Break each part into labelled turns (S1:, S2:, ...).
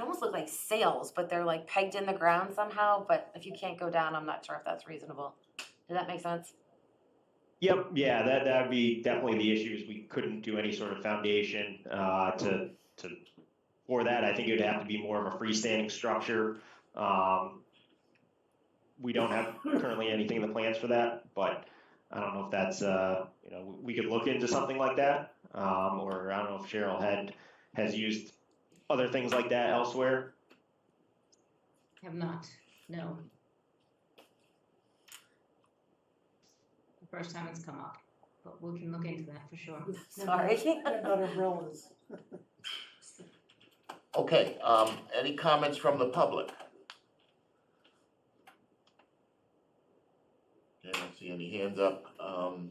S1: almost look like sails, but they're like pegged in the ground somehow. But if you can't go down, I'm not sure if that's reasonable. Does that make sense?
S2: Yep, yeah, that, that'd be definitely the issue is we couldn't do any sort of foundation, uh, to, to, for that, I think it would have to be more of a freestanding structure. Um, we don't have currently anything in the plans for that, but I don't know if that's, uh, you know, we could look into something like that. Um, or I don't know if Cheryl had, has used other things like that elsewhere.
S3: Have not, no. The First time it's come up, but we can look into that for sure.
S1: Sorry.
S4: What about umbrellas?
S5: Okay, um, any comments from the public? Okay, I don't see any hands up, um,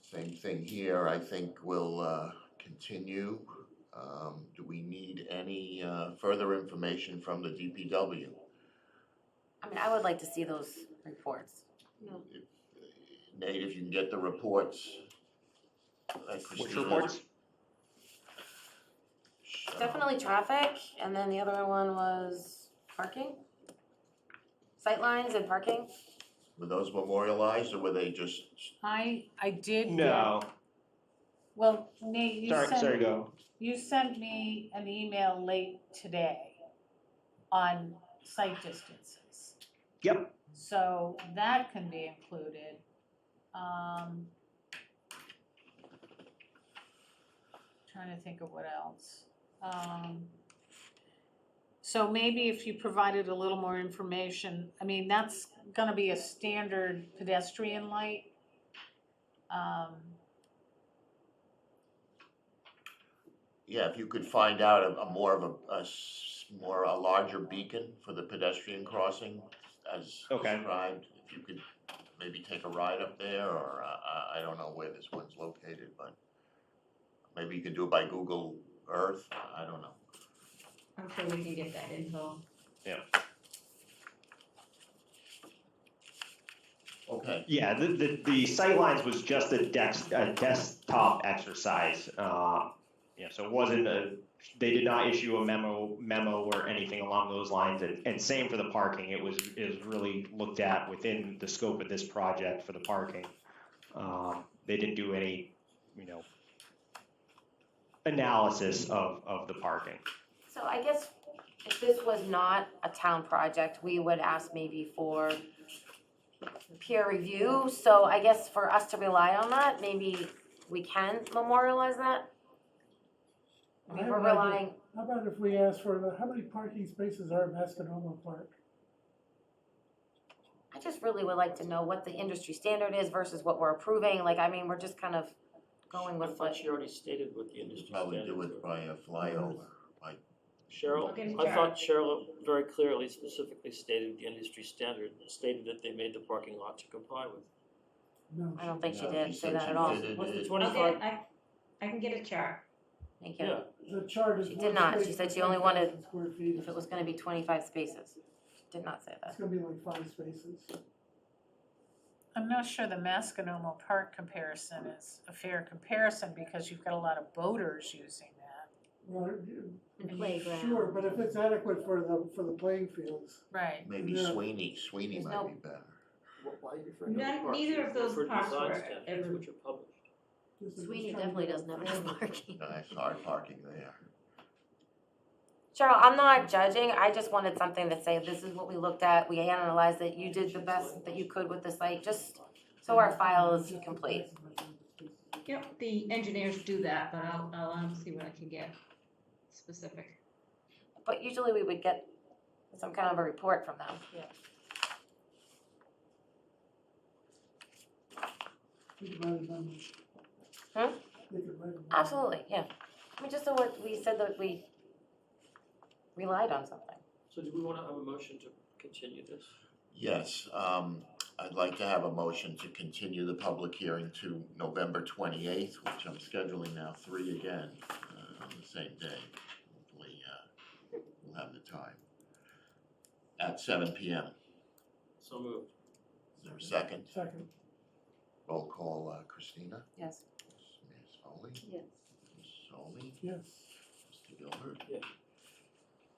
S5: same thing here, I think we'll, uh, continue. Um, do we need any, uh, further information from the DPW?
S1: I mean, I would like to see those reports.
S5: Nate, if you can get the reports. that
S2: Which
S5: Christina-
S2: reports?
S5: Sure.
S1: Definitely traffic, and then the other one was parking. Sightlines and parking.
S5: Were those memorialized or were they just,
S6: I, I did. get-
S2: No,
S6: Well, Nate, you
S2: sorry, sorry,
S6: sent,
S2: go.
S6: you sent me an email late today on site distances.
S2: Yep.
S6: So that can be included. Um. Trying to think of what else. Um. So maybe if you provided a little more information, I mean, that's gonna be a standard pedestrian light. Um.
S5: yeah, if you could find out a, a more of a, a s- more, a larger beacon for the pedestrian crossing as
S2: Okay.
S5: described, if you could maybe take a ride up there or, uh, I, I don't know where this one's located, but maybe you can do it by Google Earth, I I don't know.
S3: I'm sure we can get that info.
S5: Okay,
S2: Yeah, the, the, the sightlines was just a desk, a desktop exercise. Uh, yeah, so it wasn't a, they did not issue a memo, memo or anything along those lines. And, and same for the parking. It was, is really looked at within the scope of this project for the parking. Um, they didn't do any, you know, analysis of, of the parking.
S1: So I guess if this was not a town project, we would ask maybe for peer review. So I guess for us to rely on that, maybe we can memorialize that. I mean,
S4: I
S1: we're
S4: have an idea.
S1: relying,
S4: How about if we ask for, the- how many parking spaces are at Mascanoma Park?
S1: I just really would like to know what the industry standard is versus what we're approving. Like, I mean, we're just kind of going
S7: I
S1: with
S7: thought
S1: what,
S7: she already stated what the industry
S5: probably
S7: standards
S5: do it
S7: were.
S5: by a flyover, by
S7: Cheryl,
S3: Okay,
S7: I
S3: Cheryl.
S7: thought Cheryl very clearly specifically stated the industry standard, stated that they made the parking lot to comply with.
S4: No.
S1: I don't think she
S5: Yeah,
S1: did
S5: she
S1: say
S5: said
S1: that
S5: she
S1: at all.
S5: did.
S7: What's the
S3: I'll get,
S7: twenty-five?
S3: I, I can get a chart.
S1: Thank you.
S7: Yeah,
S4: The chart is.
S1: She did
S4: one
S1: not.
S4: space
S1: She
S4: per
S1: said she only
S4: 10,000
S1: wanted-
S4: Square feet.
S1: If it was gonna be twenty-five spaces, did not say
S4: It's
S1: that.
S4: gonna be like five spaces.
S6: I'm not sure the Mascanoma Park comparison is a fair comparison because you've got a lot of boaters using that.
S4: Well, you-
S3: playground.
S4: Sure, but if it's adequate for the, for the playing fields.
S6: Right.
S5: maybe
S4: Yeah.
S5: Sweeney, Sweeney
S1: There's no-
S5: might be better.
S7: Wh- why are you referring to the
S3: None-
S7: parks?
S3: neither of
S7: You
S3: those
S7: referred to
S3: parks
S7: design
S3: were
S7: standards,
S3: ever-
S7: Which are published.
S4: This is
S1: Sweeney
S4: just trying to-
S1: definitely doesn't have enough parking.
S5: Nice, hard parking there.
S1: Cheryl, I'm not judging, I just wanted something to say, this is what we looked at, we analyzed it, you did the best that you could with the site, just so our file is complete.
S3: Yep, the engineers do that, but I'll, I'll um, see what I can get specific.
S1: But usually we would get some kind of a report from them.
S4: They could write a memo.
S1: Huh?
S4: They could write a memo.
S1: Absolutely, yeah. I mean, just so what we said that we relied on something.
S7: So do we wanna have a motion to continue this?
S5: Yes, um, I'd like to have a motion to continue the public hearing to November twenty-eighth, which I'm scheduling now three again, uh, on the same day. Hopefully, uh, we'll have the time. At seven P M.
S7: So moved.
S5: Is there a second?
S4: Second.
S5: Roll call, uh, Christina?
S1: Yes.
S5: Ms. Foley?
S3: Yes.
S5: Ms. Solly?
S4: Yes.
S5: Mr. Gilbert?
S7: Yeah.